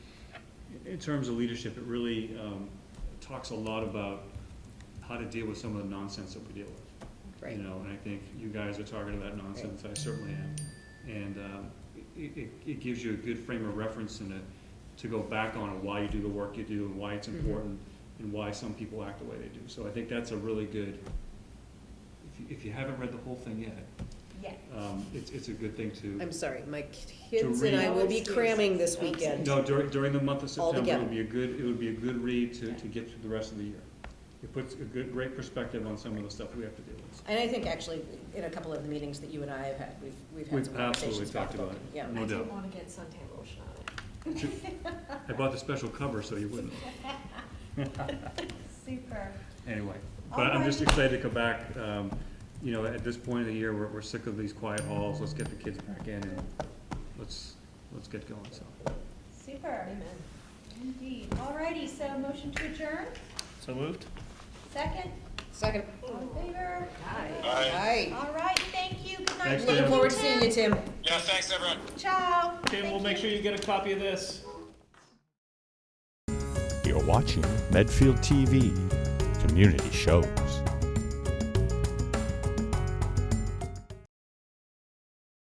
in terms of leadership, it really um, talks a lot about how to deal with some of the nonsense that we deal with. right? You know, and I think you guys are targeted that nonsense, I certainly am. And um, it, it, it gives you a good frame of reference and a, to go back on of why you do the work you do and why it's Mhm. important and why some people act the way they do. So I think that's a really good, if you, if you haven't read the whole thing yet, Yeah. um, it's, it's a good thing to. I'm sorry, my kids and read- I will be Always do. cramming this Always do. weekend. No, during, during the month of September, it Altogether. would be a good, it would be a good read to, to get through the rest of the year. It puts a good, great perspective on some of the stuff we have to deal with. And I think actually, in a couple of the meetings that you and I have had, we've, we've had We've some absolutely conversations about talked the about book. it. Yeah, No I doubt. did wanna get suntan lotion on it. I bought the special cover so you wouldn't. Super. Anyway, but I'm just excited to come back, um, you know, at this point of the year, we're, we're sick of these quiet halls, let's get the kids back in and let's, let's get going, so. Super. Amen. Indeed. Alrighty, so motion to adjourn, So moved? second, second, all in favor? Aye. aye. All right, thank you, good night. Thanks, Thank Dan. Looking forward to seeing you, Tim. Yeah, thanks, everyone. Ciao. Tim, we'll Thank make you. sure you get a copy of this. You're watching Medfield TV Community Shows.